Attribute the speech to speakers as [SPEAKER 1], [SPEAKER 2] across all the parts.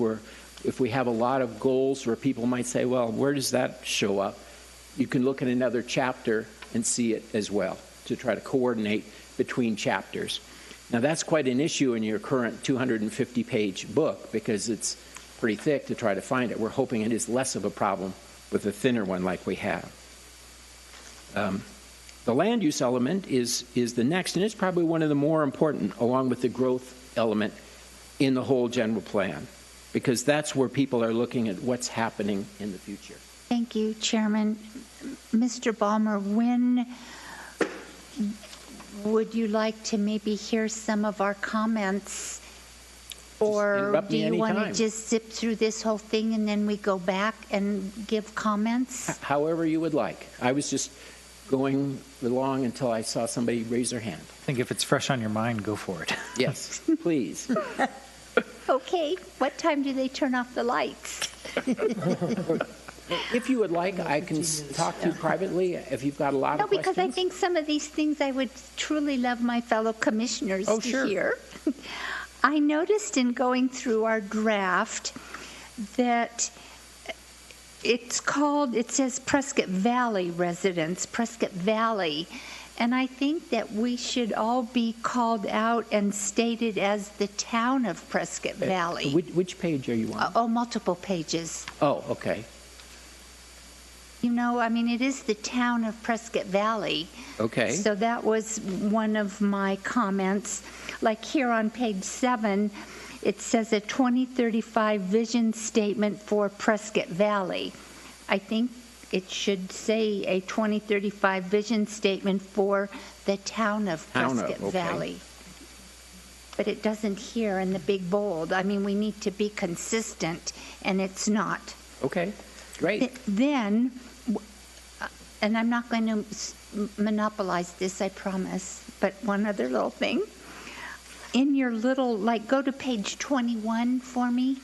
[SPEAKER 1] where if we have a lot of goals where people might say, well, where does that show up? You can look at another chapter and see it as well to try to coordinate between chapters. Now, that's quite an issue in your current 250 page book because it's pretty thick to try to find it. We're hoping it is less of a problem with a thinner one like we have. Um, the land use element is, is the next, and it's probably one of the more important, along with the growth element in the whole general plan, because that's where people are looking at what's happening in the future.
[SPEAKER 2] Thank you, Chairman. Mr. Balmer, when would you like to maybe hear some of our comments? Or
[SPEAKER 1] interrupt
[SPEAKER 2] do
[SPEAKER 1] me
[SPEAKER 2] you want to
[SPEAKER 1] anytime.
[SPEAKER 2] just zip through this whole thing and then we go back and give comments?
[SPEAKER 1] However you would like. I was just going along until I saw somebody raise their hand.
[SPEAKER 3] I think if it's fresh on your mind, go for it.
[SPEAKER 1] Yes, please.
[SPEAKER 2] Okay, what time do they turn off the lights?
[SPEAKER 1] If you would like, I can s- talk to you privately if you've got a lot
[SPEAKER 2] No,
[SPEAKER 1] of questions.
[SPEAKER 2] because I think some of these things I would truly love my fellow commissioners
[SPEAKER 1] Oh,
[SPEAKER 2] to
[SPEAKER 1] sure.
[SPEAKER 2] hear. I noticed in going through our draft that it's called, it says Prescott Valley residents, Prescott Valley. And I think that we should all be called out and stated as the town of Prescott
[SPEAKER 1] Uh,
[SPEAKER 2] Valley.
[SPEAKER 1] Which, which page are you on?
[SPEAKER 2] Oh, multiple pages.
[SPEAKER 1] Oh, okay,
[SPEAKER 2] You know, I mean, it is the town of Prescott Valley.
[SPEAKER 1] okay.
[SPEAKER 2] So that was one of my comments. Like here on page seven, it says a 2035 vision statement for Prescott Valley. I think it should say a 2035 vision statement for the town of
[SPEAKER 1] Town of,
[SPEAKER 2] Prescott
[SPEAKER 1] okay.
[SPEAKER 2] Valley. But it doesn't here in the big bold. I mean, we need to be consistent, and it's not.
[SPEAKER 1] Okay, great.
[SPEAKER 2] Th- Then, w- uh, and I'm not going to monopolize this, I promise, but one other little thing. In your little, like, go to page 21 for me.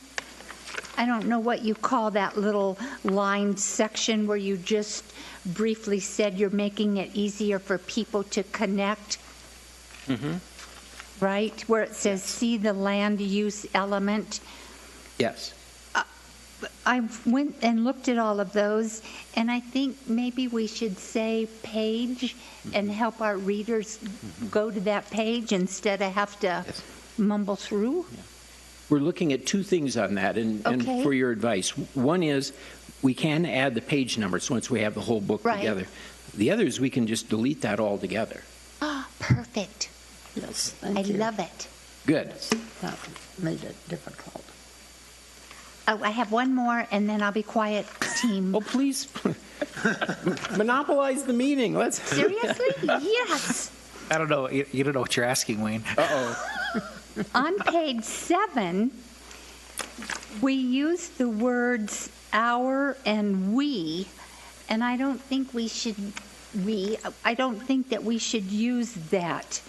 [SPEAKER 2] I don't know what you call that little line section where you just briefly said you're making it easier for people to connect. Right? Where it says, see the land use element.
[SPEAKER 1] Yes.
[SPEAKER 2] I went and looked at all of those, and I think maybe we should say page and help our readers go to that page instead of have to
[SPEAKER 1] Yes.
[SPEAKER 2] mumble through.
[SPEAKER 1] We're looking at two things on that and, and
[SPEAKER 2] Okay.
[SPEAKER 1] for your advice. One is we can add the page numbers once we have the whole book
[SPEAKER 2] Right.
[SPEAKER 1] together. The other is we can just delete that altogether.
[SPEAKER 2] Ah, perfect.
[SPEAKER 4] Yes,
[SPEAKER 2] I
[SPEAKER 4] thank you.
[SPEAKER 2] love it.
[SPEAKER 1] Good.
[SPEAKER 4] That made it difficult.
[SPEAKER 2] Oh, I have one more, and then I'll be quiet, team.
[SPEAKER 1] Oh, please monopolize the meeting. Let's.
[SPEAKER 2] Seriously? Yes.
[SPEAKER 3] I don't know. You, you don't know what you're asking, Wayne.
[SPEAKER 2] On page seven, we use the words "our" and "we," and I don't think we should, we, I don't think that we should use that.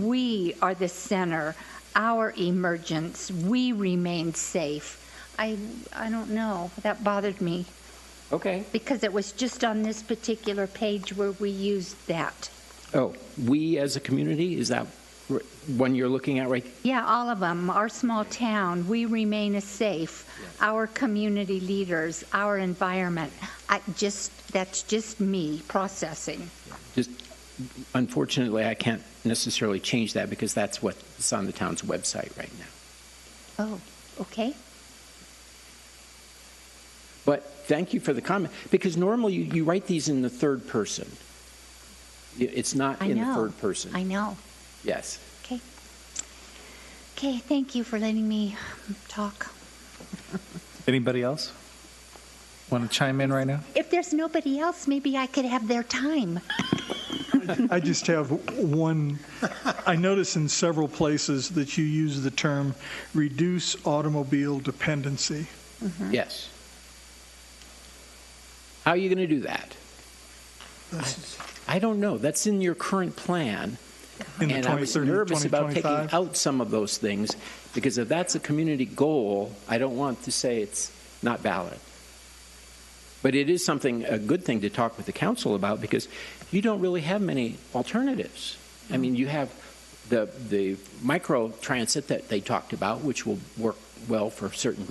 [SPEAKER 2] We are the center, our emergence, we remain safe. I, I don't know, that bothered me,
[SPEAKER 1] Okay.
[SPEAKER 2] because it was just on this particular page where we used that.
[SPEAKER 1] Oh, we as a community, is that r- one you're looking at right?
[SPEAKER 2] Yeah, all of them. Our small town, we remain a safe, our community leaders, our environment. I just, that's just me processing.
[SPEAKER 1] Just unfortunately, I can't necessarily change that because that's what's on the town's website right now.
[SPEAKER 2] Oh, okay.
[SPEAKER 1] But thank you for the comment, because normally you, you write these in the third person. I- It's not
[SPEAKER 2] I
[SPEAKER 1] in the
[SPEAKER 2] know.
[SPEAKER 1] third person.
[SPEAKER 2] I know.
[SPEAKER 1] Yes.
[SPEAKER 2] Okay. Okay, thank you for letting me talk.
[SPEAKER 3] Anybody else want to chime in right now?
[SPEAKER 2] If there's nobody else, maybe I could have their time.
[SPEAKER 5] I just have one. I notice in several places that you use the term reduce automobile dependency.
[SPEAKER 1] Yes. How are you going to do that? I don't know. That's in your current plan.
[SPEAKER 5] In the
[SPEAKER 1] And I was
[SPEAKER 5] 2030,
[SPEAKER 1] nervous about taking
[SPEAKER 5] 2025.
[SPEAKER 1] out some of those things, because if that's a community goal, I don't want to say it's not valid. But it is something, a good thing to talk with the council about, because you don't really have many alternatives. I mean, you have the, the micro transit that they talked about, which will work well for certain